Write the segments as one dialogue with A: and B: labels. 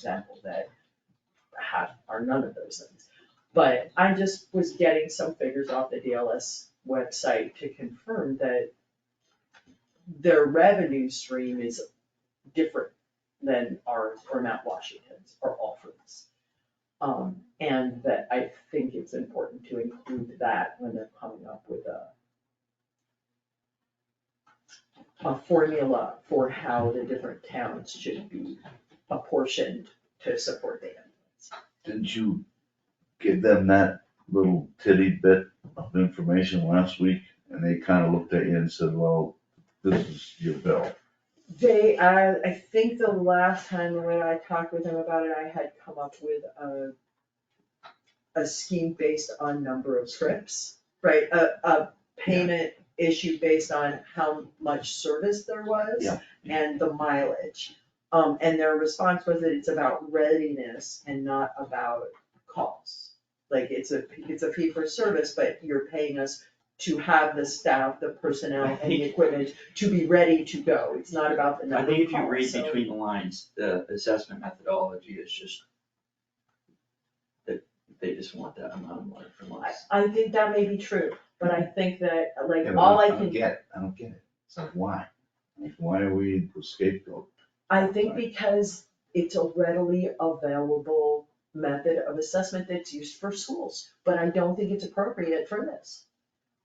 A: example, that have, are none of those things. But I just was getting some figures off the DLS website to confirm that their revenue stream is different than ours or Mount Washington's or Alfred's. Um, and that I think it's important to include that when they're coming up with a a formula for how the different towns should be apportioned to support the ambulance.
B: Didn't you give them that little titty bit of information last week? And they kinda looked at you and said, well, this is your bill.
A: They, I, I think the last time when I talked with them about it, I had come up with a a scheme based on number of trips, right? A, a payment issue based on how much service there was
B: Yeah.
A: and the mileage. Um, and their response was that it's about readiness and not about costs. Like, it's a, it's a fee for service, but you're paying us to have the staff, the personnel and the equipment to be ready to go. It's not about the
C: I
A: number of
C: think if you
A: calls,
C: read
A: so-
C: between the lines, the assessment methodology is just that they just want that amount of money from
A: I,
C: us.
A: I think that may be true, but I think that, like,
B: Yeah, but
A: all I
B: don't
A: can,
B: get it. I don't get it. It's like, why? Like, why are we the scapegoat?
A: I think because it's a readily available method of assessment that's used for schools, but I don't think it's appropriate for this.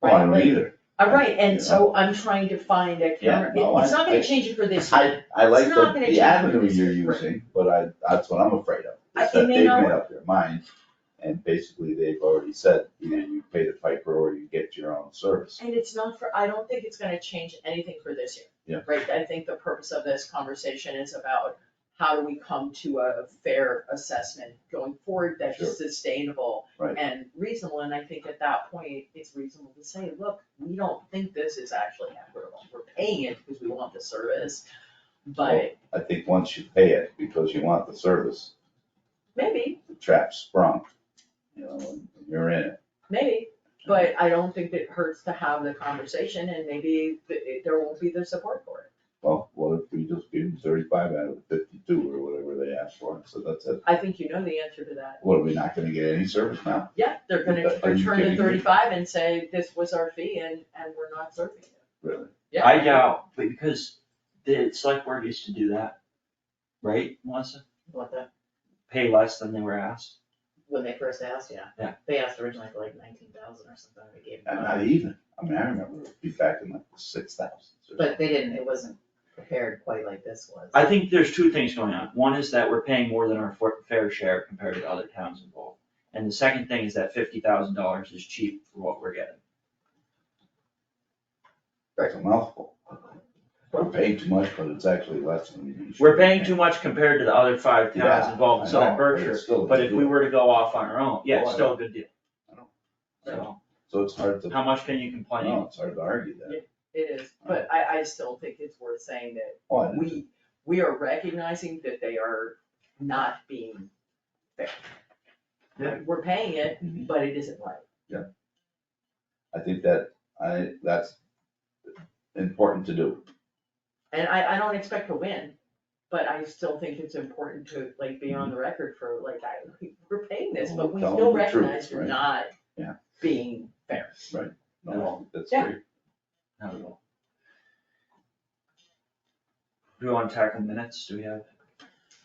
B: Well, I don't
A: Right,
B: either.
A: All right, and so I'm trying to find a counter,
B: Yeah, no,
A: it's not
B: I-
A: gonna change it for this year.
B: I, I like
A: It's not
B: the,
A: gonna
B: the
A: change
B: avenue
A: this,
B: you're
A: right.
B: using, but I, that's what I'm afraid of.
A: I-
B: is
A: it
B: that
A: may
B: they've
A: not
B: made up their mind, and basically they've already said, either you pay the piper or you get your own service.
A: And it's not for, I don't think it's gonna change anything for this year.
B: Yeah.
A: Right, I think the purpose of this conversation is about how do we come to a fair assessment going forward that's
B: Sure.
A: sustainable
B: Right.
A: and reasonable, and I think at that point, it's reasonable to say, look, we don't think this is actually equitable. We're paying it because we want the service, but
B: I think once you pay it, because you want the service,
A: maybe,
B: the trap sprung, you know, and you're in it.
A: maybe, but I don't think it hurts to have the conversation and maybe th- it- there won't be the support for it.
B: Well, what if we just give them thirty-five out of the fifty-two or whatever they asked for, so that's it.
A: I think you know the answer to that.
B: What, are we not gonna get any service now?
A: Yeah, they're gonna
B: Are you
A: return the
B: kidding me?
A: thirty-five and say, this was our fee and, and we're not serving it.
B: Really?
A: Yeah.
C: I doubt, but because the select board used to do that, right, Melissa?
D: What the,
C: Pay less than they were asked.
D: when they first asked, yeah.
C: Yeah.
D: They asked originally for like nineteen thousand or something, and we gave
B: And
D: them,
B: not even, I mean, I remember it'd be back in like six thousands or something.
D: but they didn't, it wasn't prepared quite like this was.
C: I think there's two things going on. One is that we're paying more than our for- fair share compared to other towns involved. And the second thing is that fifty thousand dollars is cheap for what we're getting.
B: That's a mouthful. We're paying too much, but it's actually less than we.
C: We're paying too much compared to the other five towns
B: Yeah,
C: involved in
B: I know,
C: Southern
B: but it's
C: Berkshire,
B: still a
C: but
B: good
C: if we
B: deal.
C: were to go off on our own, yeah, it's
B: Oh, I
C: still a good deal.
B: I know.
C: So,
B: So it's hard to,
C: how much can you complain?
B: no, it's hard to argue that.
A: It is, but I, I still think it's worth saying that
B: Oh, I-
A: we, we are recognizing that they are not being fair.
C: Yeah.
A: We're paying it,
B: Mhm.
A: but it isn't right.
B: I think that, I, that's important to do.
A: And I, I don't expect to win, but I still think it's important to like be on the record for like, I, we're paying this, but we
B: Mm-hmm.
A: still
B: Tell them the truth,
A: recognize you're
B: right?
A: not
B: Yeah.
A: being fair.
B: No, that's
A: Yeah.
B: great.
C: Not at all. Do we wanna tackle minutes? Do we have?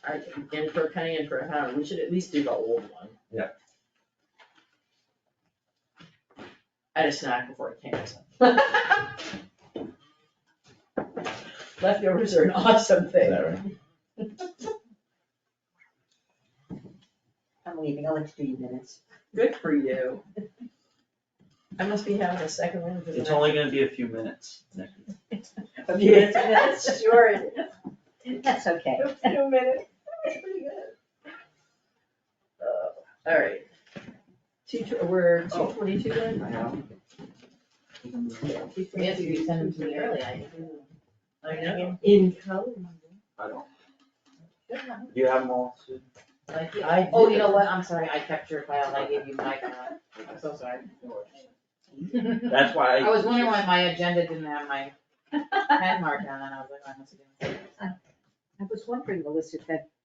A: I, in for a penny, in for a pound, we should at least do the old one.
C: Yeah.
A: I had a snack before I came, so. Leftovers are an awesome
B: Is
A: thing.
B: that right?
E: I'm leaving, I'll let you do your minutes.
A: Good for you. I must be having a second one because
C: It's
A: I-
C: only gonna be a few minutes. Nick.
E: A few minutes,
A: Yes, sure.
E: That's okay.
A: A few minutes. That's pretty good. Uh, All right. Two, tw- we're
C: Oh.
A: two twenty-two then?
D: Yes, you sent them to me early, I
A: I know. In color.
C: I don't. You have them all? Sue?
D: like,
A: I
D: oh, you
A: did.
D: know what, I'm sorry, I kept your file, I gave you my file, I'm so sorry.
C: That's why.
D: I was wondering why my agenda didn't have my head marked on it, I was like, I must have done.
E: I was wondering, Melissa, if that